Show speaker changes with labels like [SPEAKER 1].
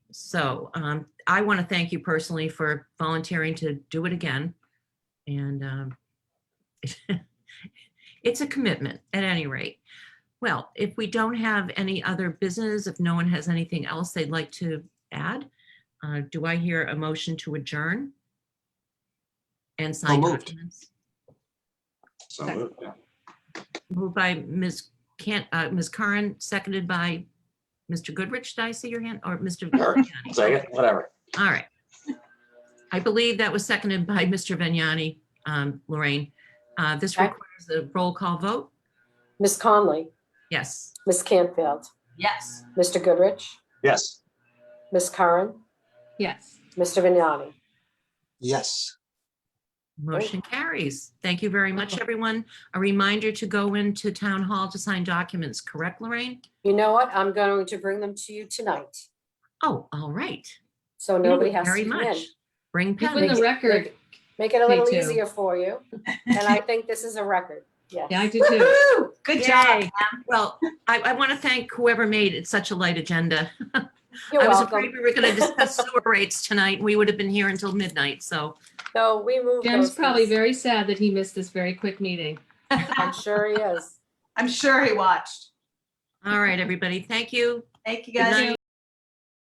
[SPEAKER 1] So um, I want to thank you personally for volunteering to do it again. And um, it's a commitment at any rate. Well, if we don't have any other business, if no one has anything else they'd like to add, uh, do I hear a motion to adjourn? And sign
[SPEAKER 2] moved.
[SPEAKER 1] documents?
[SPEAKER 2] So moved. yeah.
[SPEAKER 1] Moved by Ms. Can, uh, Ms. Curran, seconded by Mr. Goodrich. Did I see your hand? Or Mr.
[SPEAKER 2] Sure.
[SPEAKER 1] Vignani?
[SPEAKER 2] Second, whatever.
[SPEAKER 1] All right. I believe that was seconded by Mr. Vignani, um, Lorraine. Uh, this
[SPEAKER 3] Okay.
[SPEAKER 1] requires a roll call vote.
[SPEAKER 3] Ms. Conley,
[SPEAKER 1] Yes.
[SPEAKER 3] Ms. Canfield,
[SPEAKER 1] Yes.
[SPEAKER 3] Mr. Goodrich,
[SPEAKER 2] Yes.
[SPEAKER 3] Ms. Curran,
[SPEAKER 4] Yes.
[SPEAKER 3] Mr. Vignani.
[SPEAKER 2] Yes.
[SPEAKER 1] Motion carries. Thank you very much, everyone. A reminder to go into town hall to sign documents, correct, Lorraine?
[SPEAKER 3] You know what? I'm going to bring them to you tonight,
[SPEAKER 1] Oh, all right.
[SPEAKER 3] so
[SPEAKER 1] Thank you
[SPEAKER 3] nobody has to
[SPEAKER 1] Very
[SPEAKER 3] come in.
[SPEAKER 1] much. Bring
[SPEAKER 4] You win
[SPEAKER 1] pen.
[SPEAKER 4] the record.
[SPEAKER 3] Make it a
[SPEAKER 4] Me
[SPEAKER 3] little
[SPEAKER 4] too.
[SPEAKER 3] easier for you, and I think this is a record, yes.
[SPEAKER 4] Yeah, I do too.
[SPEAKER 1] Good job. Well, I, I want to thank whoever made it such a light agenda.
[SPEAKER 3] You're
[SPEAKER 1] I was afraid
[SPEAKER 3] welcome.
[SPEAKER 1] we were going to discuss sewer rates tonight. We would have been here until midnight, so.
[SPEAKER 3] So we move.
[SPEAKER 4] Jim's
[SPEAKER 3] those
[SPEAKER 4] probably
[SPEAKER 3] things.
[SPEAKER 4] very sad that he missed this very quick meeting.
[SPEAKER 3] I'm sure he is.
[SPEAKER 5] I'm sure he watched.
[SPEAKER 1] All right, everybody. Thank you.
[SPEAKER 5] Thank you
[SPEAKER 1] Good
[SPEAKER 5] guys.
[SPEAKER 1] night.